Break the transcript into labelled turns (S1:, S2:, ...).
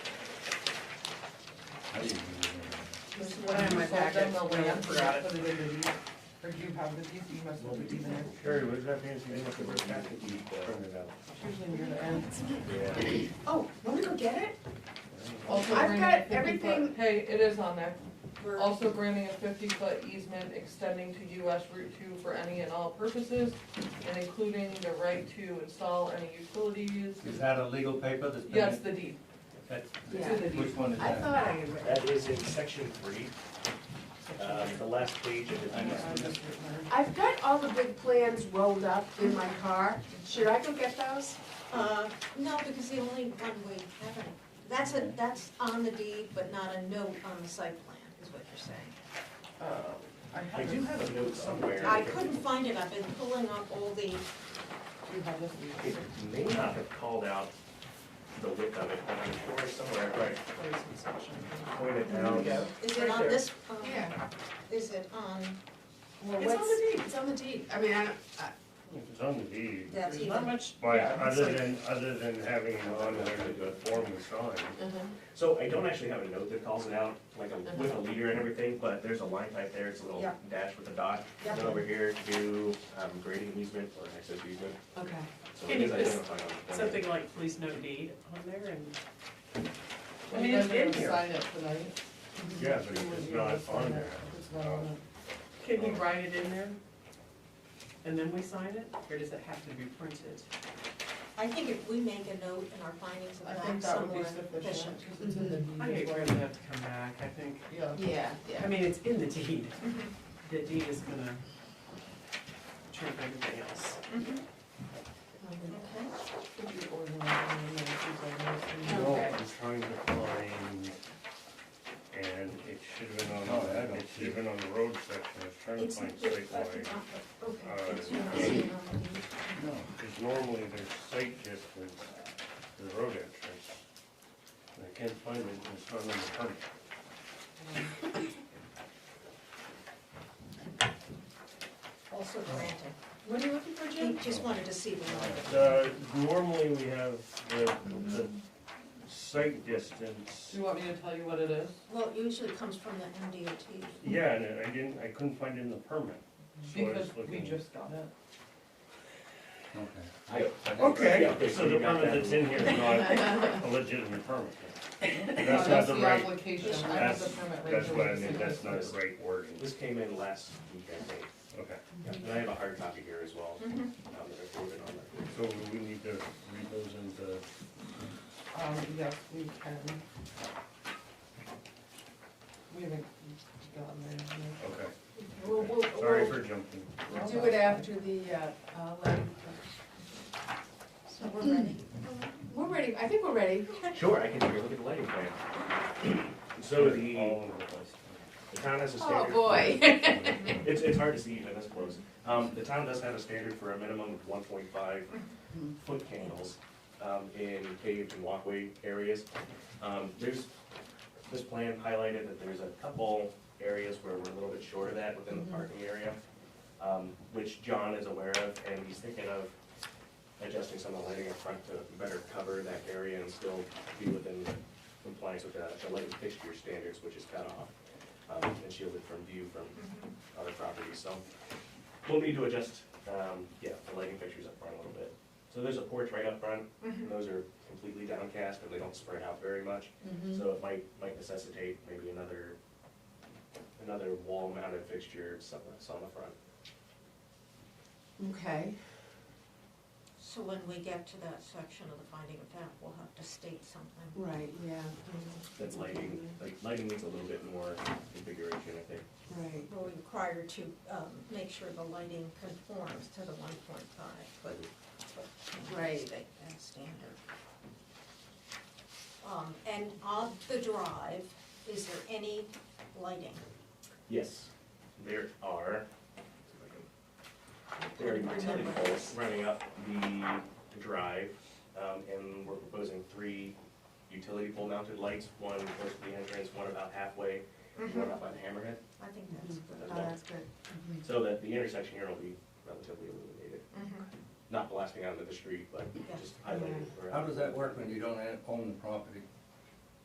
S1: This is
S2: Put it in my
S1: you sold them
S2: packet.
S1: the land,
S2: Forgot
S1: you
S2: it.
S1: Put it in the deed, or do you have the deed, you must have the deed in it.
S3: Carrie, what does that fancy name of the packet you printed out?
S1: It's usually near the end.
S3: Yeah.
S4: Oh, let me go get it?
S2: Also
S4: I've
S2: granting
S4: got
S2: a 50
S4: everything-
S2: foot- Hey, it is on there.
S4: We're-
S2: Also granting a fifty-foot easement extending to US Route two for any and all purposes, and including the right to install any utilities.
S5: Is that a legal paper that's been?
S2: Yes, the deed,
S5: That's,
S2: it's in the deed.
S5: which one is
S4: I
S5: that?
S4: thought I had read.
S6: That is in section three, um, the last page of it.
S1: I just written
S4: I've got all the big plans rolled up in my car. Should I go get those?
S7: Uh, no, because the only one we have, it- that's a, that's on the deed, but not a note on the site plan, is what you're saying.
S1: it. Uh, I
S6: I
S1: have
S6: do
S1: it.
S6: have a note somewhere.
S7: I couldn't find it, I've been pulling up all the,
S1: You have this
S6: It
S1: deed.
S6: may not have called out the width of it, but I'm sure somewhere, right, um,
S1: Place and section.
S6: pointed
S1: There you
S6: out.
S1: go.
S7: is
S1: Right
S7: it on
S1: there.
S7: this, um,
S4: Yeah.
S7: is it on,
S4: Well,
S1: It's on
S4: what's-
S1: the deed.
S4: It's on the deed. I mean, I, don't- I-
S3: If it's on the deed,
S7: that's
S1: There's not
S7: even,
S1: much.
S3: why,
S1: yeah, it's
S3: other
S1: like-
S3: than, other than having it on there to the form we signed,
S6: So I don't actually have a note that calls it out, like a- with a leader and everything, but there's a line type there, it's a little
S7: Yeah.
S6: dash with a dot.
S7: Yeah.
S6: Then over here, do um, grading easement or access easement,
S4: okay.
S6: so
S1: Can
S6: it is
S1: you just-
S6: identified on the. plan.
S1: Something like please no deed on there and. I
S2: Well,
S1: mean,
S2: you
S1: it's
S2: guys are
S1: in
S2: gonna
S1: here.
S2: Sign it tonight.
S3: yeah, but it's not on there.
S2: It's not on
S1: Can you write it in there? And then we sign it, or does it have to be printed?
S7: I think if we make a note in our findings
S2: it.
S7: of
S2: I
S7: fact
S2: think that would
S7: somewhere
S2: be sufficient,
S7: efficient.
S2: 'cause it's in the deed.
S1: I think
S2: as well.
S1: we're gonna have to come back, I think.
S2: Yeah.
S4: Yeah,
S1: I mean, it's in the deed. The deed is gonna trump everything else.
S7: Okay.
S3: No,
S4: Okay.
S3: I'm trying to find, and it should have been on, it should have been on the road section, I was trying to
S7: It's,
S3: find
S7: it's,
S3: site
S7: okay,
S3: line.
S7: it's not seen on the deed.
S3: Because normally there's site distance to the road entrance. And I can't find it, it's not on the permit.
S7: Also granted,
S4: What are you looking for,
S7: he
S4: Jim?
S7: just wanted to see the line.
S3: Uh, normally we have the, the site distance,
S2: Do you want me to tell you what it is?
S7: Well, it usually comes from the MDOT.
S3: yeah, and I didn't, I couldn't find it in the permit. So I was
S2: Because we
S3: looking-
S2: just got it.
S6: I-
S3: Okay, so the permit that's in here is
S2: Uh,
S3: not a legitimate permit. That's not the right,
S2: application, I have
S3: that's,
S2: the permit right
S3: that's
S2: here.
S3: what I mean, that's not the right wording,
S6: This came in last week, I think.
S3: okay.
S6: Yeah, And I have a hard copy here as well.
S4: Mm-hmm.
S6: Um, that I forwarded on there.
S3: So we need to read those into.
S1: Um, yes, we can. We haven't gotten there yet.
S3: Okay,
S4: We'll, we'll,
S3: sorry
S4: we'll
S3: for jumping.
S4: do it after the, uh, uh, land-
S7: So we're ready.
S4: we're ready. I think we're ready.
S6: Sure, I can take a look at the lighting plan. So the,
S3: All over the place.
S6: the town has a
S4: Oh,
S6: standard.
S4: boy.
S6: It's, it's hard to see even this close. Um, the town does have a standard for a minimum of one point five foot candles, um, in paved and walkway areas. Um, there's, this plan highlighted that there's a couple areas where we're a little bit short of that within the parking area, um, which John is aware of, and he's thinking of adjusting some of the lighting up front to better cover that area and still be within compliance with the, the lighting fixture standards, which is cut off, um, and shielded from view from other properties, so we'll need to adjust, um, yeah, the lighting fixtures up front a little bit. So there's a porch right up front, and those are completely downcast, and they don't spread out very much, so it might, might necessitate maybe another, another wall mounted fixture, something, something on the front.
S4: Okay.
S7: So when we get to that section of the finding of fact, we'll have to state something.
S4: Right, yeah,
S6: That lighting, like, lighting needs a little bit more configuration, I think.
S4: right.
S7: We're required to um, make sure the lighting conforms to the one point five foot. foot
S4: Right.
S7: state and standard. Um, And on the drive, is there any lighting?
S6: Yes, there are. There are utility poles running up the drive, um, and we're proposing three utility pole mounted lights, one close to the entrance, one about halfway, and one up by the hammerhead,
S7: I think that's
S4: Oh,
S7: good.
S4: that's good.
S6: so that the intersection here will be relatively illuminated, not blasting out into the street, but just highlighted.
S5: How
S6: around.
S5: does that work when you don't own the property?